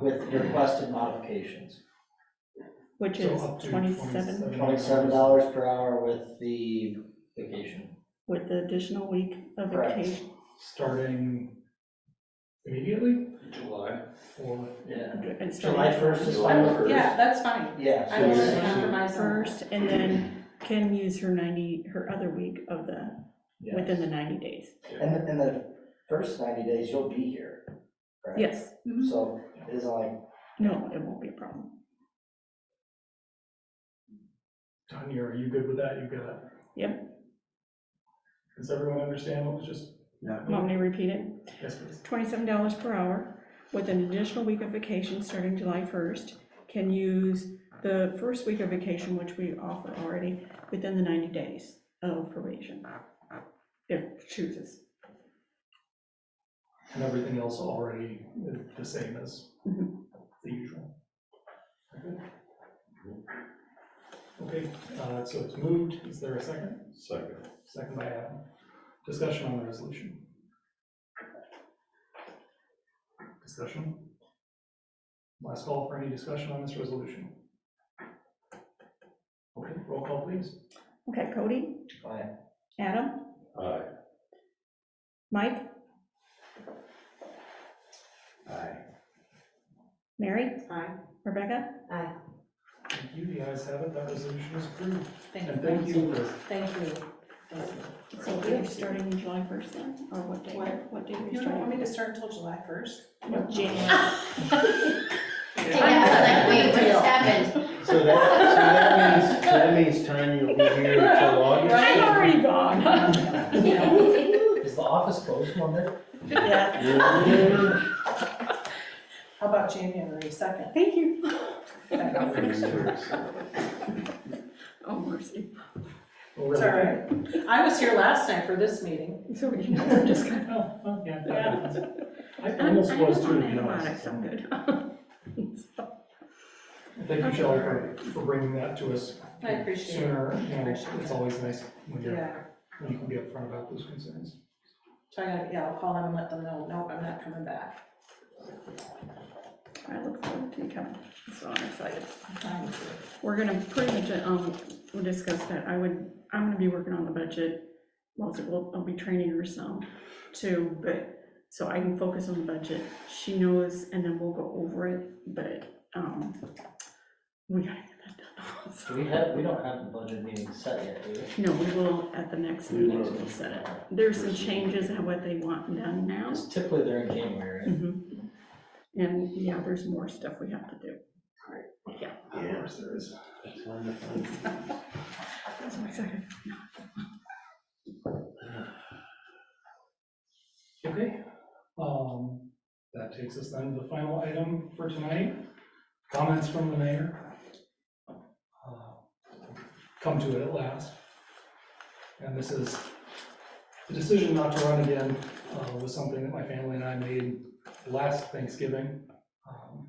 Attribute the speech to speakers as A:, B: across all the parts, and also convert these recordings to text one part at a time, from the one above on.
A: with requested modifications.
B: which
C: So
B: is
C: up to
B: twenty-seven
A: Twenty-seven dollars per hour with the vacation.
B: with the additional week of
A: Correct.
B: vacation.
C: Starting immediately
D: July.
C: or?
A: Yeah.
B: and
A: July
B: starting
A: first is fine with,
E: Yeah, that's fine.
A: yeah.
E: I
A: so
E: want
A: it's-
E: to compromise on that.
B: First, and then can use her ninety, her other week of the,
A: yeah.
B: within the ninety days.
A: And, the- and the first ninety days, you'll be here, correct?
B: Yes,
A: So it isn't like,
B: no, it won't be a problem.
C: Tanya, are you good with that? You got it? Yep. Does everyone understand what was just?
B: Want me to repeat it?
C: Yes, please.
B: Twenty-seven dollars per hour with an additional week of vacation starting July first. Can use the first week of vacation, which we offer already, within the ninety days of probation. If chooses.
C: And everything else already is the same as
B: Mhm.
C: the usual. Okay, uh, so it's moved. Is there a second?
D: Second.
C: Second by Adam. Discussion on the resolution. Discussion? Last call for any discussion on this resolution. Okay, roll call please.
B: Okay, Cody,
A: fine.
B: Adam,
D: Aye.
B: Mike,
D: Aye.
B: Mary,
E: Aye.
B: Rebecca?
E: Aye.
C: Thank you, the ayes have it, that resolution is approved.
E: Thank
C: And thank you for
E: Thank you. Thank
B: So we are starting July first then, or what day,
E: What?
B: what day are
E: You
B: you
E: don't want me
B: starting?
E: to start until July first?
B: No, January,
F: Yeah, I was like, wait, what just happened?
G: So that, so that means, so that means Tanya will be here until August?
B: I'm already gone.
A: Is the office closed Monday?
B: Yeah,
E: How about January second?
B: thank you.
D: Aye.
B: Oh, mercy.
C: Well,
E: It's
C: really-
E: all right. I was here last night for this meeting.
B: So we can, we're just gonna.
C: Oh, well, yeah. that
E: Yeah.
C: happens. I
B: I'm-
C: almost
B: I'm
C: was
B: on
C: too, to be
B: antibiotics,
C: honest.
B: I'm good. So,
C: Thank you, Shelley, for, for bringing that to us
E: I appreciate it.
C: sooner. You know,
E: Appreciate
C: it's
E: it.
C: always nice when you're,
E: Yeah.
C: when you can be upfront about those concerns.
E: So I gotta, yeah, I'll call them and let them know, nope, I'm not coming back.
B: I look forward to you coming, so I'm excited.
E: Um,
B: We're gonna pretty much, um, we'll discuss that, I would, I'm gonna be working on the budget, most of, I'll be training her some too, but, so I can focus on the budget, she knows, and then we'll go over it, but, um, we gotta get that done,
A: Do we have, we don't have the budget meeting set yet, do we?
B: No, we will, at the next meeting, we'll set it, there's some changes in what they want done now.
A: Because typically they're in January, right?
B: Mhm. And, yeah, there's more stuff we have to do.
C: Of course there is.
B: So excited.
C: Okay, um, that takes us then to the final item for tonight, comments from the mayor. Uh, Come to it at last. And this is, the decision not to run again uh, was something that my family and I made last Thanksgiving. um,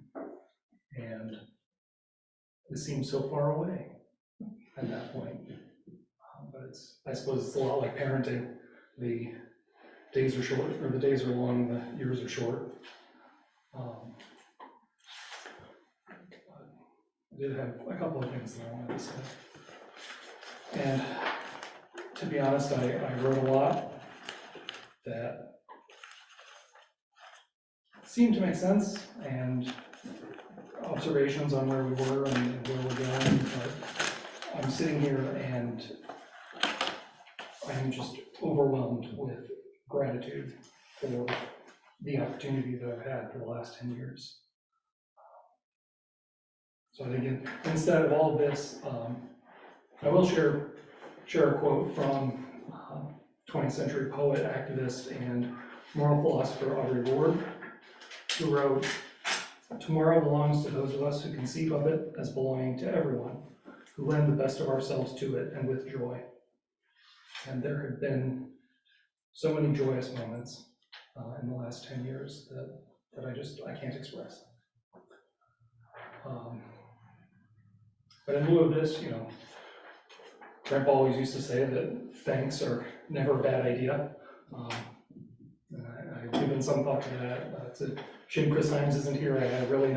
C: And it seemed so far away at that point. Um, But it's, I suppose it's a lot like parenting, the days are short, or the days are long, the years are short. Um, I did have a couple of things that I wanted to say. And to be honest, I, I wrote a lot that seemed to make sense and observations on where we were and where we're going, but I'm sitting here and I'm just overwhelmed with gratitude for the opportunity that I've had for the last ten years. So I think in- instead of all this, um, I will share, share a quote from um, twentieth century poet, activist, and moral philosopher Audre Lorde, who wrote, "Tomorrow belongs to those of us who conceive of it as belonging to everyone, who lend the best of ourselves to it and with joy." And there have been so many joyous moments uh, in the last 10 years that, that I just, I can't express. Um, But in lieu of this, you know, Grandpa always used to say that thanks are never a bad idea. Um, and I- I've given some thought to that. Uh, it's a- Jim Chris Hines isn't here. I had a really